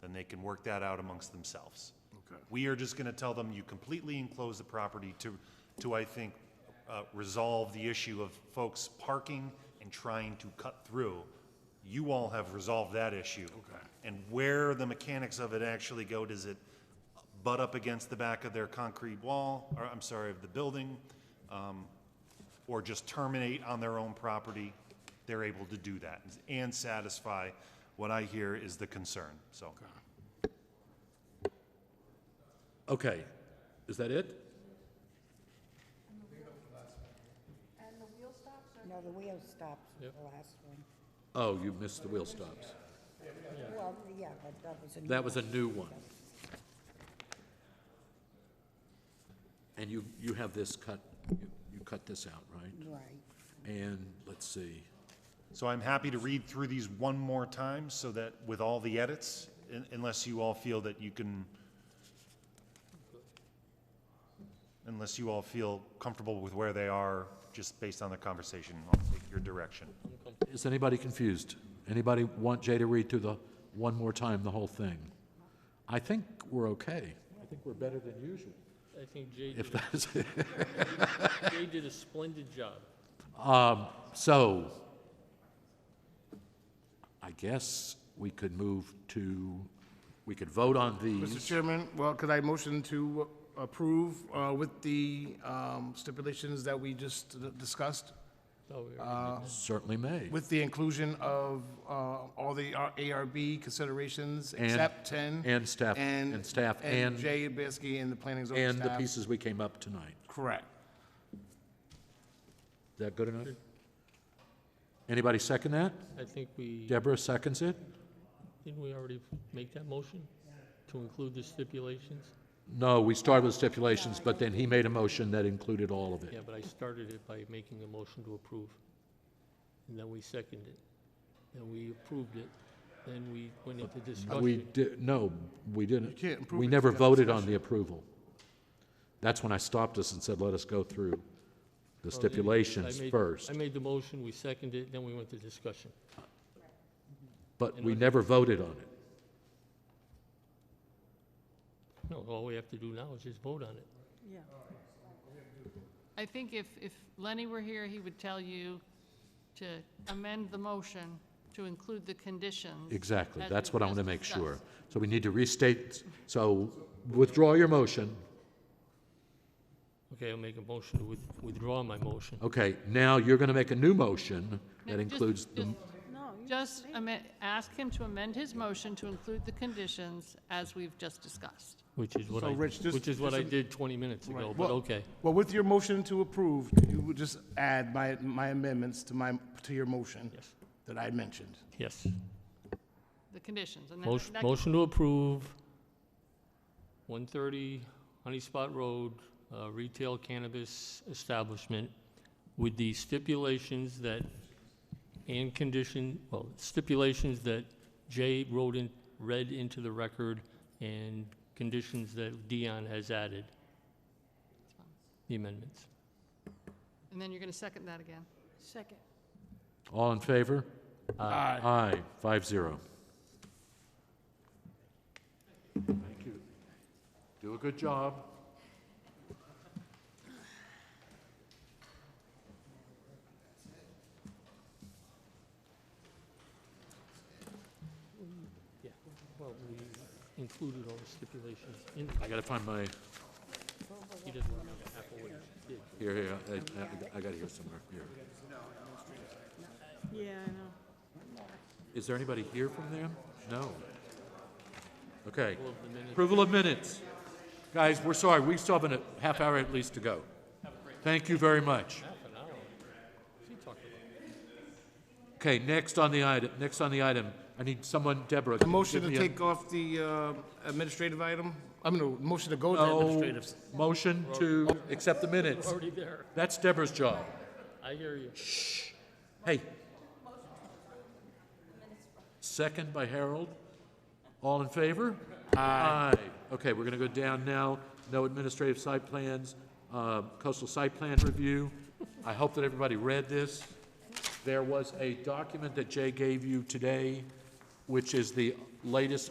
then they can work that out amongst themselves. Okay. We are just gonna tell them, you completely enclose the property to, to, I think, uh, resolve the issue of folks parking and trying to cut through. You all have resolved that issue. Okay. And where the mechanics of it actually go, does it butt up against the back of their concrete wall, or, I'm sorry, of the building? um, Or just terminate on their own property? They're able to do that and satisfy what I hear is the concern, so. Okay, is that it? No, the wheel stops with the last one. Oh, you missed the wheel stops. Well, yeah, but that was a new. That was a one. new one. And you, you have this cut, you- you cut this out, right? Right. And, let's see, So I'm happy to read through these one more time so that with all the edits, un- unless you all feel that you can, unless you all feel comfortable with where they are, just based on the conversation, I'll take your direction. is anybody confused? Anybody want Jay to read through the, one more time, the whole thing? I think we're okay. I think we're better than usual. I think Jay If did, that's, a- Jay did a splendid job. um, so, I guess we could move to, we could vote on these. Mr. Chairman, well, could I motion to approve uh, with the um, stipulations that we just d- discussed? Oh, yeah. Certainly may. With the inclusion of uh, all the R- ARB considerations, And- except 10. and staff- and staff and- Jay Bisky and the planning zone And the staff. pieces we came up tonight. Correct. Is that good enough? Anybody second that? I think we, Deborah seconds it? didn't we already make that motion to include the stipulations? No, we started with stipulations, but then he made a motion that included all of Yeah, it. but I started it by making a motion to approve. And then we seconded it. Then we approved it. Then we went into We discussion. did, no, we didn't. can't approve We it never without voted on the approval. That's when I stopped us and said, let us go through the Oh, you- I stipulations made- first. I made the motion, we seconded it, then we went to discussion. But we never voted on it. No, all we have to do now is just vote on it. Yeah. I think if, if Lenny were here, he would tell you to amend the motion to include the conditions. Exactly, as that's we've what I want just to make discussed. sure. So we need to restate, so withdraw your motion. Okay, I'll make a motion to with- withdraw my motion. Okay, now you're going to make a new motion No, that just- includes the just- Just amend, ask him to amend his motion to include the conditions as we've just discussed. Which is what So, I, Rich, just- which is what just I a- did 20 minutes ago, Right. Oh, but Well- okay. Well, with your motion to approve, you would just add my, my amendments to my, to your motion Yes, that I mentioned. yes. The conditions, and then Motion, that- motion to approve 130 Honey Spot Road uh, retail cannabis establishment with the stipulations that, and condition, well, stipulations that Jay wrote in, read into the record and conditions that Dion has added. The amendments. and then you're going to second that again. Second. All in favor? Aye. Aye, five zero. Thank you. Do a good job. Yeah, well, we included all the stipulations in. I gotta find my, He doesn't remember half of what he did. here, here, I- I, I got it here somewhere, here. Yeah, I know. Is there anybody here from them? No. Okay. Well, the minute- Approval of minutes. Guys, we're sorry, we still have a half hour at least to go. Thank you very much. Half an hour. She talked about it. Okay, next on the item, next on the item, I need someone, Deborah. A motion give to me a- take off the uh, administrative item? I mean, no, motion to go to No, administrative. Motion to accept the minutes. Already there. That's Deborah's job. I hear you. Hey. Second by Harold. All in favor? Aye. Okay, we're gonna go down now. No administrative site plans, uh, coastal site plan review. I hope that everybody read this. There was a document that Jay gave you today, which is the latest